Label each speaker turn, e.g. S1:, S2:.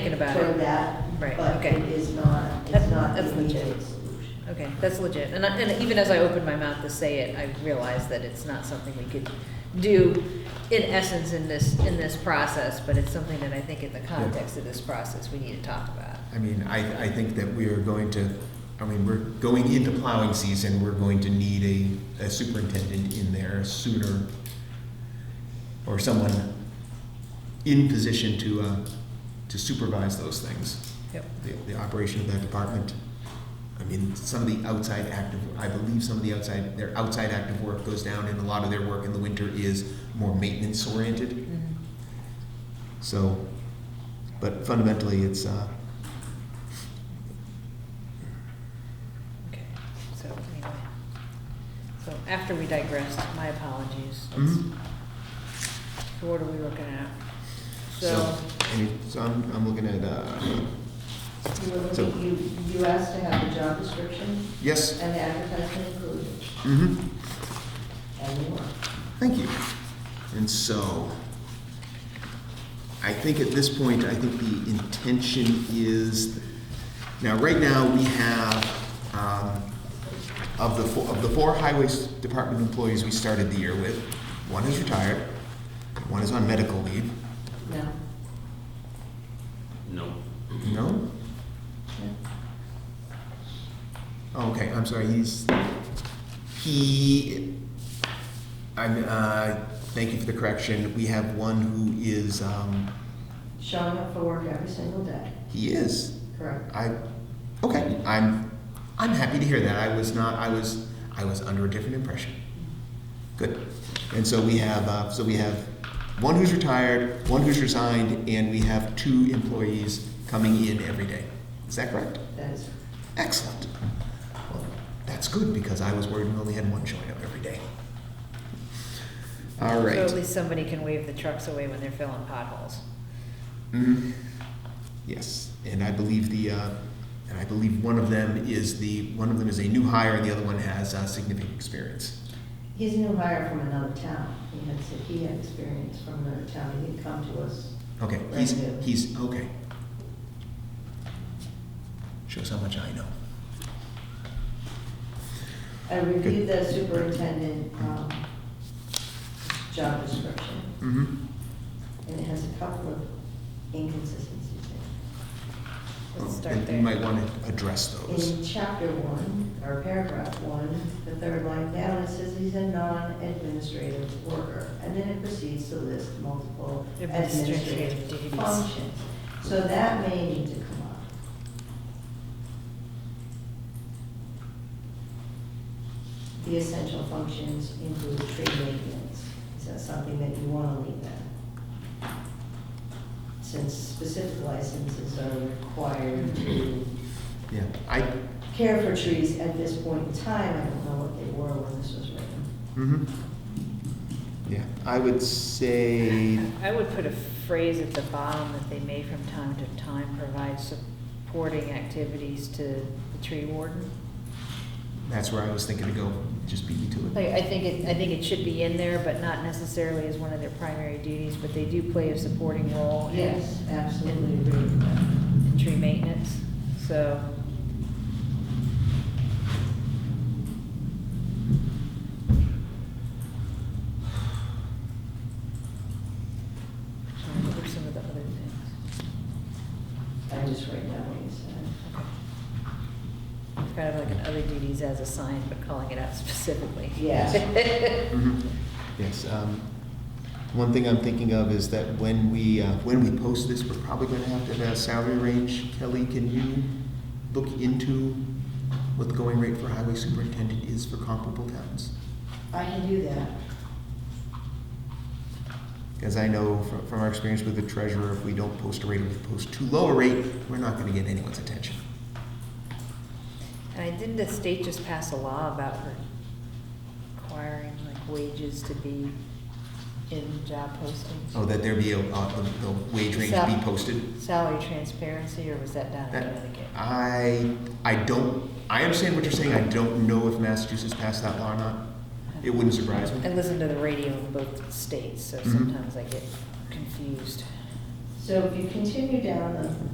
S1: about
S2: for
S1: it.
S2: that.
S1: Right,
S2: But
S1: okay.
S2: it is not,
S1: That-
S2: it's not the
S1: that's legit.
S2: immediate solution.
S1: Okay, that's legit. And, I- and even as I opened my mouth to say it, I realized that it's not something we could do in essence in this, in this process, but it's something that I think in the context of this process, we need to talk about.
S3: I mean, I, I think that we are going to, I mean, we're going into plowing season, we're going to need a, a superintendent in there sooner, or someone in position to, uh, to supervise those things,
S1: Yep.
S3: the, the operation of that department. I mean, some of the outside active, I believe some of the outside, their outside active work goes down, and a lot of their work in the winter is more maintenance oriented.
S1: Mhm.
S3: So, but fundamentally, it's, uh,
S1: Okay, so anyway. So after we digressed, my apologies. Let's-
S3: Mhm.
S1: So what are we looking at?
S3: so,
S1: So,
S3: any, so I'm, I'm looking at, uh,
S2: You were
S3: So-
S2: looking, you, you asked to have the job description
S3: yes,
S2: and the advertisement included,
S3: hmm
S2: and you are.
S3: thank you. And so, I think at this point, I think the intention is, now, right now, we have, um, of the, fo- of the four highway s- department employees we started the year with, one is retired, one is on medical leave.
S2: No,
S4: No.
S3: No? Oh, Okay, I'm sorry, he's, he, I'm, uh, thank you for the correction. We have one who is, um,
S2: showing up for work every single day,
S3: he is,
S2: correct?
S3: I, okay, I'm, I'm happy to hear that. I was not, I was, I was under a different impression. Good. And so we have, uh, so we have one who's retired, one who's resigned, and we have two employees coming in every day. Is that correct?
S2: That is,
S3: Excellent. Well, that's good because I was worried we only had one showing up every day. All
S1: so
S3: right.
S1: at least somebody can wave the trucks away when they're filling potholes.
S3: Mhm. Yes, and I believe the, uh, and I believe one of them is the, one of them is a new hire and the other one has uh, significant experience.
S2: he's a new hire from another town. He had, said he had experience from another town. He had come to us.
S3: Okay, he's,
S2: Brand new.
S3: he's, okay. Shows how much I know.
S2: I reviewed the superintendent, um, job description,
S3: Mm-hmm.
S2: and it has a couple of inconsistencies in it.
S1: Let's start
S3: Oh, You might
S1: there.
S3: want to address those.
S2: In chapter one, or paragraph one, the third line down, it says he's a non-administrative worker. And then it proceeds to list multiple
S1: Administrative
S2: administrative
S1: duties.
S2: functions. So that may need to come up. The essential functions include tree maintenance. Is that something that you want to leave in? Since specific licenses are required to
S1: Mm-hmm.
S3: Yeah, I,
S2: care for trees at this point in time. I don't know what they were when this was written.
S3: mm-hmm. Yeah, I would say,
S1: I would put a phrase at the bottom that they may from time to time provide supporting activities to the tree warden.
S3: that's where I was thinking to go, just beat me to it.
S1: Like, Oh, I think it, I think it should be in there, but not necessarily as one of their primary duties, but they do play a supporting
S2: Oh,
S1: role in-
S2: Yes, absolutely agree with that.
S1: in tree maintenance, so. Sorry, what were some of the other things?
S2: I just write down what you said.
S1: Okay. It's Kind of like an other duties as assigned, but calling it out specifically.
S2: Yeah.
S3: Mhm. Yes, um, one thing I'm thinking of is that when we, uh, when we post this, we're probably gonna have to have a salary range. Kelly, can you look into what the going rate for highway superintendent is for comparable towns?
S2: I can do that.
S3: Because I know from, from our experience with the treasurer, if we don't post a rate, or we post too low a rate, we're not gonna get anyone's attention.
S1: And I, didn't the state just pass a law about requiring like wages to be in job postings?
S3: Oh, that there be a, uh, the, the wage range
S1: Sal-
S3: be posted?
S1: Salary transparency, or was that down in
S3: That- uh,
S1: Connecticut?
S3: I, I don't, I understand what you're saying, I don't know if Massachusetts passed that law or not. It wouldn't surprise
S1: I
S3: me.
S1: listen to the radio in both states, so
S3: Mhm.
S1: sometimes I get confused.
S2: So if you continue down the